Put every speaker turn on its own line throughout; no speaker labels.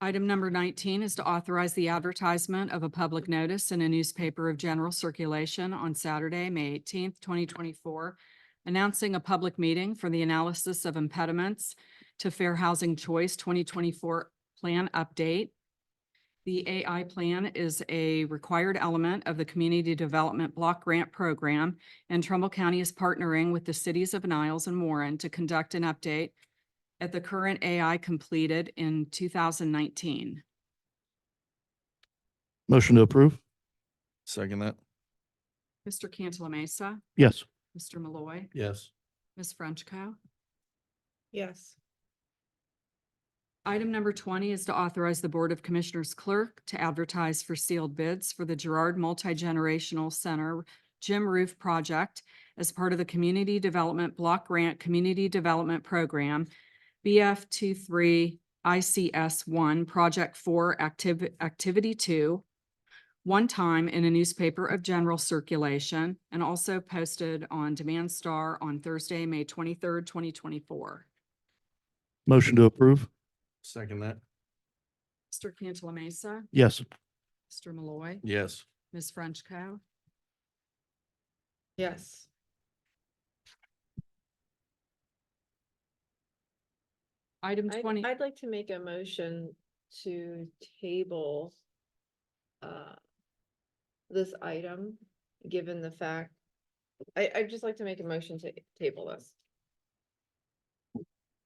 Item number nineteen is to authorize the advertisement of a public notice in a newspaper of general circulation on Saturday, May eighteenth, twenty twenty-four, announcing a public meeting for the analysis of impediments to Fair Housing Choice twenty twenty-four plan update. The AI plan is a required element of the Community Development Block Grant Program, and Trumbull County is partnering with the cities of Niles and Warren to conduct an update at the current AI completed in two thousand nineteen.
Motion to approve. Second that.
Mr. Cantala Mesa,
Yes.
Mr. Malloy,
Yes.
Ms. Frenchco.
yes,
Item number twenty is to authorize the Board of Commissioners clerk to advertise for sealed bids for the Gerard Multi-Generational Center Gym Roof Project as part of the Community Development Block Grant Community Development Program, BF 23 ICS one, Project four, Activ- Activity two, one time in a newspaper of general circulation and also posted on Demand Star on Thursday, May twenty-third, twenty twenty-four.
Motion to approve. Second that.
Mr. Cantala Mesa.
Yes.
Mr. Malloy.
Yes.
Ms. Frenchco.
yes,
Item
I'd,
twenty,
I'd like to make a motion to table uh, this item, given the fact, I, I'd just like to make a motion to table this.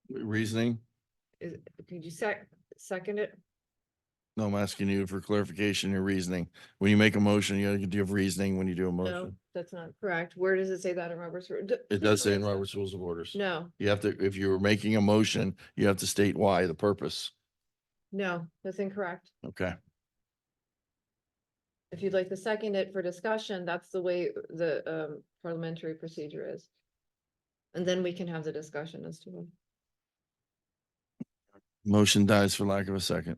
Reasoning?
Is, could you sec, second it?
No, I'm asking you for clarification, your reasoning. When you make a motion, you, do you have reasoning when you do
No,
a motion?
that's not correct. Where does it say that in Robert's? Ru- d-
It does say in Robert's Rules of Orders.
No,
You have to, if you were making a motion, you have to state why, the purpose.
no, that's incorrect.
Okay,
If you'd like to second it for discussion, that's the way the um parliamentary procedure is. And then we can have the discussion as to. whether-
motion dies for lack of a second.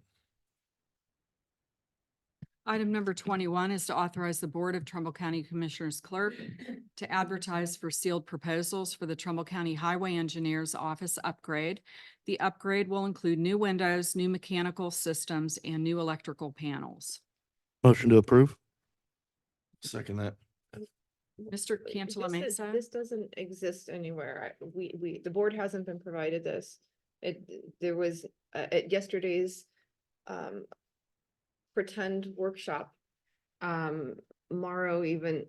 item number twenty-one is to authorize the Board of Trumbull County Commissioners Clerk to advertise for sealed proposals for the Trumbull County Highway Engineers Office upgrade. The upgrade will include new windows, new mechanical systems, and new electrical panels.
Motion to approve.
Second that.
Mr.
Wait,
Cantala
this is-
Mesa.
This doesn't exist anywhere. I- We, we, the board hasn't been provided this. It, there was, uh, at yesterday's, um, pretend workshop, um, Morrow even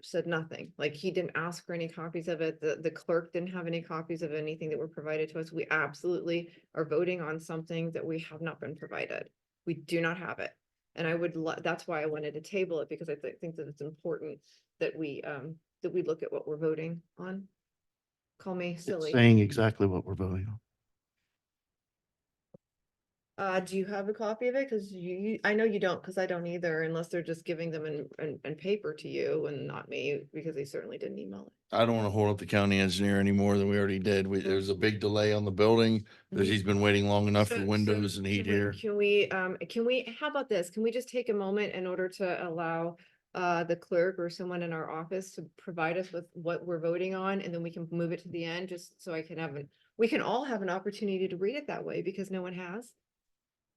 said nothing. Like, he didn't ask for any copies of it. The, the clerk didn't have any copies of anything that were provided to us. We absolutely are voting on something that we have not been provided. We do not have it. And I would, lo- that's why I wanted to table it, because I thi- think that it's important that we, um, that we look at what we're voting on. Call me
It's
silly.
Saying exactly what we're voting on.
Uh, do you have a copy of it? Cause you, you- I know you don't, cause I don't either, unless they're just giving them in, in, in paper to you and not me, because they certainly didn't email it.
I don't want to hold up the county engineer any more than we already did. We, there's a big delay on the building. that he's been waiting long enough
So-
for
so
windows and heat
can we-
here.
Can we, um, can we, how about this? Can we just take a moment in order to allow uh, the clerk or someone in our office to provide us with what we're voting on, and then we can move it to the end, just so I can have it, we can all have an opportunity to read it that way, because no one has.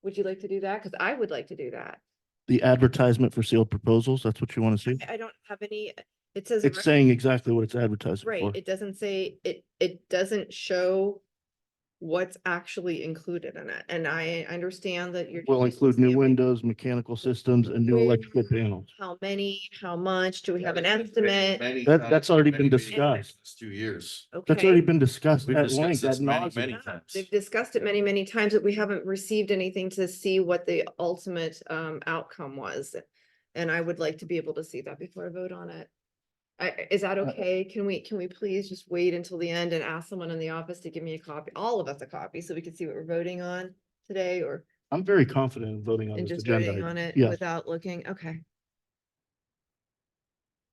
Would you like to do that? Cause I would like to do that.
The advertisement for sealed proposals, that's what you want to see?
I- I don't have any, it says.
It's
re-
saying exactly what it's advertising for.
Right, it doesn't say, it, it doesn't show what's actually included in it, and I understand that you're.
Will
trying to
include new
say, like,
windows, mechanical systems, and new electrical panels.
How many, how much, do we have an
Many-
estimate?
many
That-
times,
that's already
many
been
meetings,
discussed.
it's Two years.
That's already
Okay.
been discussed
We've
at length,
discussed
ad
this many,
nauseam.
many
Yeah,
times.
They've discussed it many, many times, but we haven't received anything to see what the ultimate, um, outcome was. And I would like to be able to see that before I vote on it. I, is
Uh,
that okay? Can we, can we please just wait until the end and ask someone in the office to give me a copy, all of us a copy, so we can see what we're voting on today or,
I'm very confident in voting on
and
this
just
agenda.
voting
item.
on it
Yes.
without looking? Okay.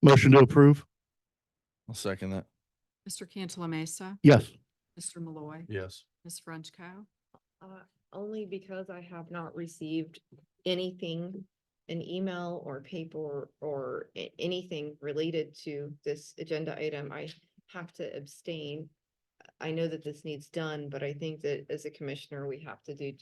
Motion to approve?
I'll second that.
Mr. Cantala Mesa,
Yes.
Mr. Malloy,
Yes.
Ms. Frenchco.
Uh, only because I have not received anything, an email or paper or a- anything related to this agenda item, I have to abstain. I know that this needs done, but I think that as a commissioner, we have to do